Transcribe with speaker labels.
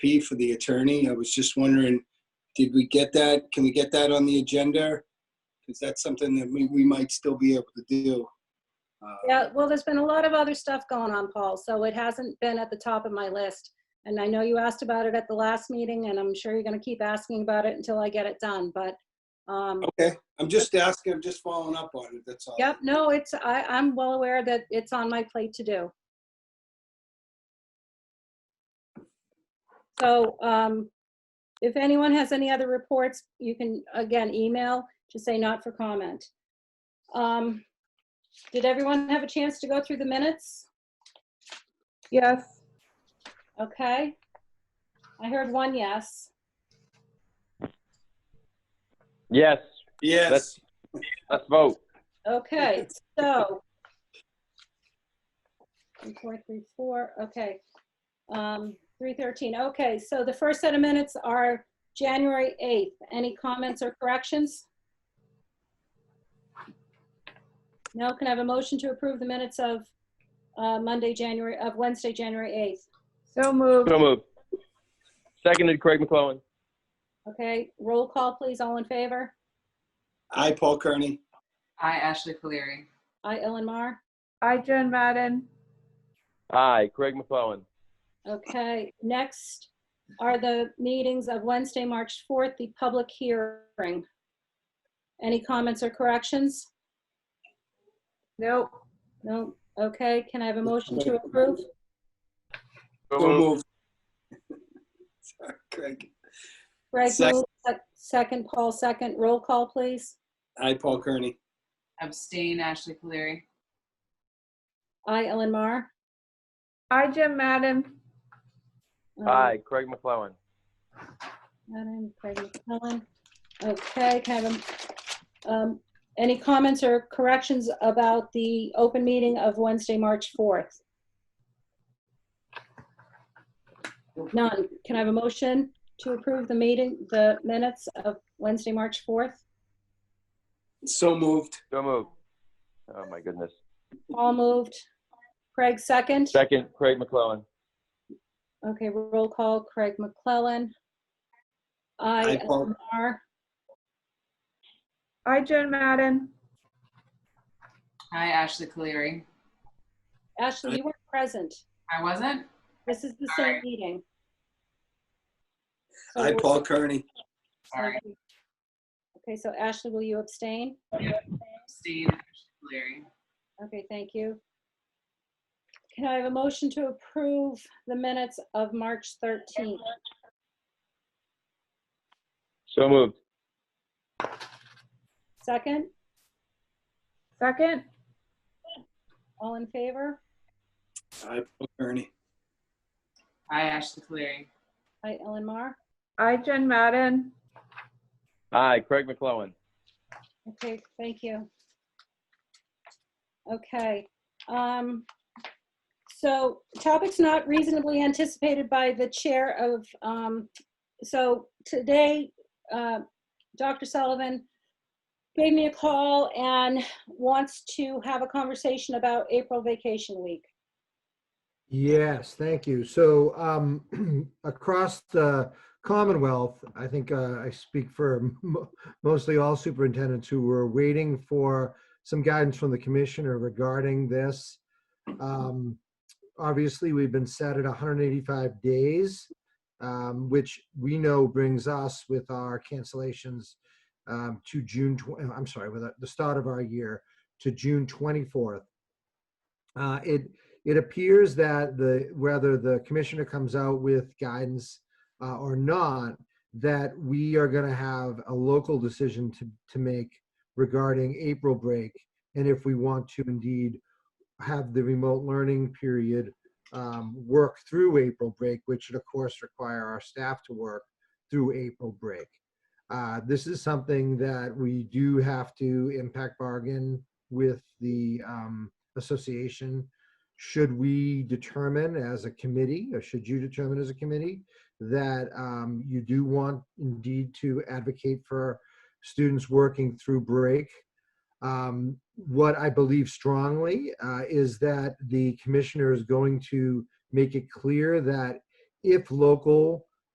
Speaker 1: RFP for the attorney. I was just wondering, did we get that? Can we get that on the agenda? Because that's something that we, we might still be able to do. Uh,
Speaker 2: Yeah, well, there's been a lot of other stuff going on, Paul, so it hasn't been at the top of my list. And I know you asked about it at the last meeting, and I'm sure you're gonna keep asking about it until I get it done, but, um,
Speaker 1: Okay, I'm just asking, I'm just following up on it, that's all.
Speaker 2: yep, no, it's, I, I'm well aware that it's on my plate to do. So, um, if anyone has any other reports, you can, again, email, just say not for comment. Um, did everyone have a chance to go through the minutes?
Speaker 3: Yes,
Speaker 2: Okay. I heard one yes.
Speaker 4: Yes,
Speaker 1: Yes,
Speaker 4: let's vote.
Speaker 2: Okay, so. Three, four, three, four, okay. Um, three thirteen, okay, so the first set of minutes are January eighth. Any comments or corrections? No, can I have a motion to approve the minutes of, uh, Monday, January, of Wednesday, January eighth?
Speaker 3: so moved.
Speaker 4: So moved. Seconded Craig McClellan.
Speaker 2: Okay, roll call, please, all in favor?
Speaker 1: I, Paul Kearney.
Speaker 5: I, Ashley Caleri.
Speaker 2: Aye, Ellen Mar?
Speaker 3: I, Joan Madden.
Speaker 4: Aye, Craig McClellan.
Speaker 2: Okay, next are the meetings of Wednesday, March 4th, the public hearing. Any comments or corrections?
Speaker 3: Nope.
Speaker 2: No? Okay, can I have a motion to approve?
Speaker 1: So
Speaker 4: So moved.
Speaker 1: moved. Sorry, Craig.
Speaker 2: Greg
Speaker 1: Second.
Speaker 2: moved, sec- second, Paul second, roll call, please.
Speaker 1: I, Paul Kearney.
Speaker 5: Abstain, Ashley Caleri.
Speaker 2: Aye, Ellen Mar.
Speaker 3: I, Jim Madden.
Speaker 2: Um,
Speaker 4: Aye, Craig McClellan.
Speaker 2: Adam, Craig McClellan. Okay, can I have a- um, any comments or corrections about the open meeting of Wednesday, March 4th? None. Can I have a motion to approve the meeting, the minutes of Wednesday, March 4th?
Speaker 1: So moved.
Speaker 4: So moved. Oh, my goodness.
Speaker 2: All moved. Craig, second?
Speaker 4: Second, Craig McClellan.
Speaker 2: Okay, roll call. Craig McClellan.
Speaker 1: Aye,
Speaker 2: Aye,
Speaker 1: Paul.
Speaker 2: Ellen Mar.
Speaker 3: I, Joan Madden.
Speaker 5: I, Ashley Caleri.
Speaker 2: Ashley, you were present.
Speaker 5: I wasn't?
Speaker 2: This is the same meeting. So
Speaker 1: I,
Speaker 2: we'll-
Speaker 1: Paul Kearney.
Speaker 5: Sorry.
Speaker 2: Okay, so Ashley, will you abstain?
Speaker 5: Abstain, Ashley
Speaker 2: Okay, thank you. Can I have a motion to approve the minutes of March 13th?
Speaker 4: So moved.
Speaker 2: Second,
Speaker 3: Second.
Speaker 2: all in favor?
Speaker 1: I, Paul Kearney.
Speaker 5: Caleri. I, Ashley Caleri.
Speaker 2: Hi, Ellen Mar.
Speaker 3: I, Joan Madden.
Speaker 4: Aye, Craig McClellan.
Speaker 2: Okay, thank you. Okay, um, so topics not reasonably anticipated by the chair of, um, so today, uh, Dr. Sullivan gave me a call and wants to have a conversation about April vacation week.
Speaker 6: Yes, thank you. So um, across the Commonwealth, I think uh, I speak for mo- mostly all superintendents who were waiting for some guidance from the commissioner regarding this. Um, Obviously, we've been set at 185 days, um, which we know brings us with our cancellations um, to June, tw- I'm sorry, with the start of our year to June 24th. Uh, It it appears that the whether the commissioner comes out with guidance uh, or not, that we are going to have a local decision to to make regarding April break, and if we want to indeed have the remote learning period um, work through April break, which would of course require our staff to work through April break. Uh, this is something that we do have to impact bargain with the um, association should we determine as a committee, or should you determine as a committee, that um, you do want indeed to advocate for students working through break? Um, What I believe strongly uh, is that the commissioner is going to make it clear that if local